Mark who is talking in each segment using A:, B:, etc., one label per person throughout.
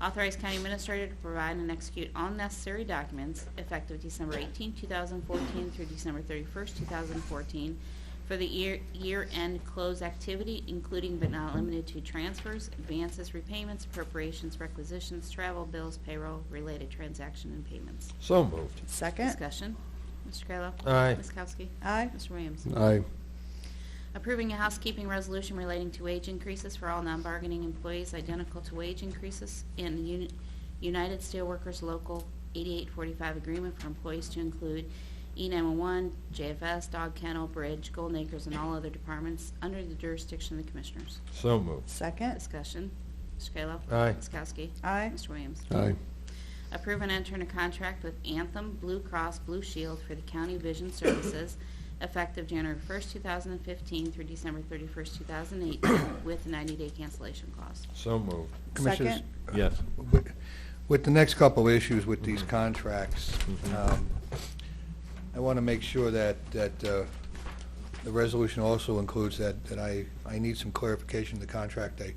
A: Authorize County Administrator to provide and execute all necessary documents effective December 18, 2014 through December 31, 2014 for the year- year-end close activity, including but not limited to transfers, advances, repayments, appropriations, requisitions, travel, bills, payroll, related transaction, and payments.
B: So moved.
C: Second.
A: Discussion. Mr. Kayla.
B: Aye.
A: Ms. Kowski.
C: Aye.
A: Mr. Williams.
B: Aye.
A: Approving a housekeeping resolution relating to wage increases for all non-bargaining employees identical to wage increases in the Uni- United Steelworkers Local 8845 agreement for employees to include E E911, JFS, Dog Kennel, Bridge, Golden Acres, and all other departments under the jurisdiction of the Commissioners.
B: So moved.
C: Second.
A: Discussion. Mr. Kayla.
B: Aye.
A: Ms. Kowski.
C: Aye.
A: Mr. Williams.
B: Aye.
A: Approve and enter in a contract with Anthem Blue Cross Blue Shield for the County Vision Services effective January 1st, 2015 through December 31st, 2018 with a 90-day cancellation clause.
B: So moved.
D: Commissioners,
B: Yes. Mm-hmm.
D: wi- with the next couple of issues with these contracts,
B: Mhm.
D: um, I want to make sure that, that uh, the resolution also includes that, that I, I need some clarification of the contract. I-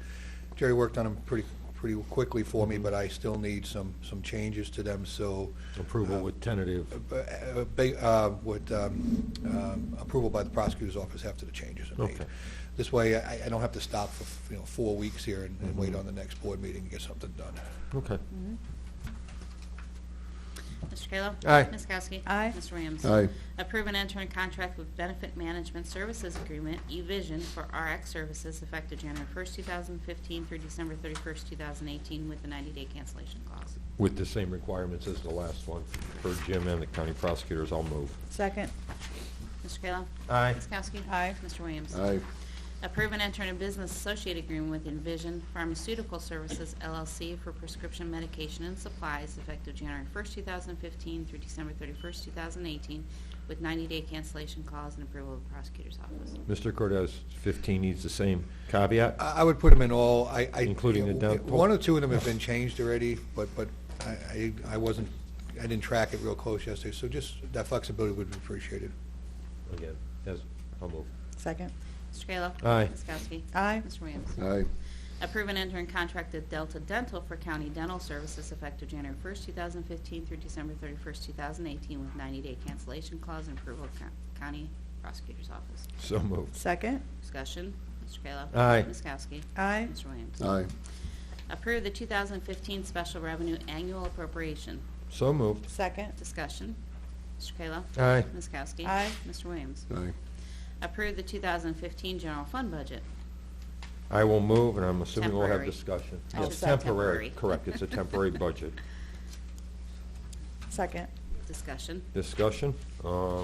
D: Jerry worked on them pretty, pretty quickly for
B: Mm-hmm.
D: me, but I still need some, some changes to them, so.
B: Approval
D: uh,
B: with tentative.
D: uh, uh, ba- uh, Would um, um, approval by the prosecutor's office after the changes are made.
B: Okay.
D: This way, I I don't have to stop for, you know, four weeks here and and
B: Mm-hmm.
D: wait on the next board meeting to get something done.
B: Okay.
A: Mr. Kayla?
B: Aye.
A: Ms. Kowski?
C: Aye.
A: Mr. Williams?
B: Aye.
A: Approve and enter in contract with Benefit Management Services Agreement, eVision, for RX services effective January 1st, 2015 through December 31st, 2018 with a 90-day cancellation clause.
B: With the same requirements as the last one for Jim and the county prosecutors, I'll move.
C: Second.
A: Mr. Kayla?
B: Aye.
A: Ms. Kowski?
C: Aye.
A: Mr. Williams? Approve and enter in a business associate agreement with Envision Pharmaceutical Services LLC for prescription medication and supplies effective January 1st, 2015 through December 31st, 2018, with 90-day cancellation clause and approval of the prosecutor's office.
B: Mr. Cordez, 15 needs the same caveat?
D: I I would put them in all, I... I-
B: Including the dump-
D: One or two of them have been changed already, but, but I- I I wasn't, I didn't track it real close yesterday, so just that flexibility would be appreciated.
B: Again, yes, I'll move.
C: Second.
A: Mr. Kayla?
B: Aye.
A: Ms. Kowski?
C: Aye.
A: Mr. Williams?
B: Aye.
A: Approve and enter in contract with Delta Dental for county dental services effective January 1st, 2015 through December 31st, 2018, with 90-day cancellation clause and approval of co- county prosecutor's office.
B: So moved.
C: Second.
A: Discussion, Mr. Kayla.
B: Aye.
A: Ms. Kowski.
C: Aye.
A: Mr. Williams.
B: Aye.
A: Approve the 2015 Special Revenue Annual Appropriation.
B: So moved.
C: Second.
A: Discussion, Mr. Kayla.
B: Aye.
A: Ms. Kowski.
C: Aye.
A: Mr. Williams.
B: Aye.
A: Approve the 2015 General Fund Budget.
B: I will move, and I'm assuming we'll have
A: Temporary.
B: discussion.
A: I
B: Yes,
A: should say temporary.
B: Correct, it's a temporary budget.
C: Second.
A: Discussion,
B: discussion. Uh,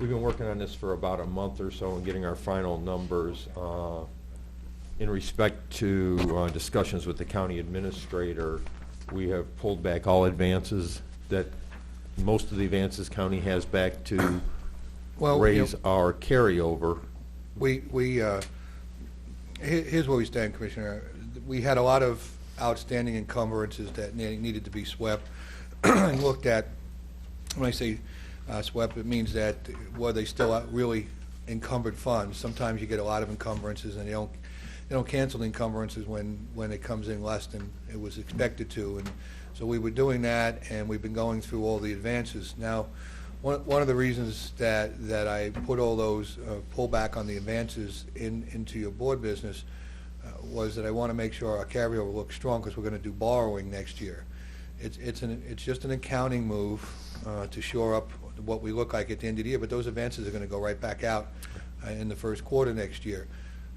B: We've been working on this for about a month or so and getting our final numbers. Uh, In respect to uh, discussions with the county administrator, we have pulled back all advances that, most of the advances county has back to
D: Well, you know-
B: raise our carryover.
D: We, we, uh, he- here's where we stand, Commissioner. We had a lot of outstanding encumbrances that ne- needed to be swept and looked at. When I say uh, swept, it means that were they still out- really encumbered funds? Sometimes you get a lot of encumbrances and they don't, they don't cancel the encumbrances when, when it comes in less than it was expected to. And so we were doing that and we've been going through all the advances. Now, one, one of the reasons that, that I put all those uh, pullback on the advances in, into your board business uh, was that I want to make sure our carryover looks strong because we're going to do borrowing next year. It's, it's an, it's just an accounting move uh, to shore up what we look like at the end of the year, but those advances are going to go right back out uh, in the first quarter next year.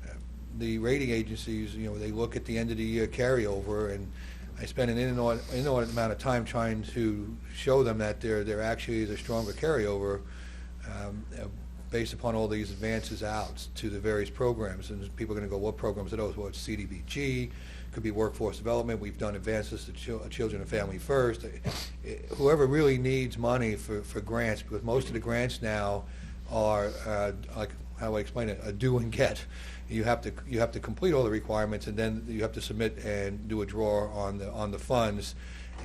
D: Uh, The rating agencies, you know, they look at the end of the year carryover and I spend an inordinate inordinate amount of time trying to show them that there, there actually is a stronger carryover um, uh, based upon all these advances out to the various programs. And people are going to go, what programs are those? Well, it's CDBG, could be workforce development, we've done advances to chil- children and family first. Uh, Whoever really needs money for, for grants, because most of the grants now are, uh, like, how do I explain it, a do and get. You have to, you have to complete all the requirements, and then you have to submit and do a draw on the, on the funds.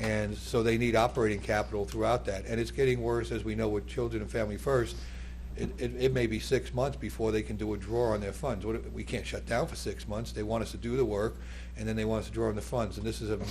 D: And so they need operating capital throughout that. And it's getting worse, as we know, with Children and Family First. It, it, it may be six months before they can do a draw on their funds. What, if- we can't shut down for six months. They want us to do the work, and then they want us to draw on the funds. And this is a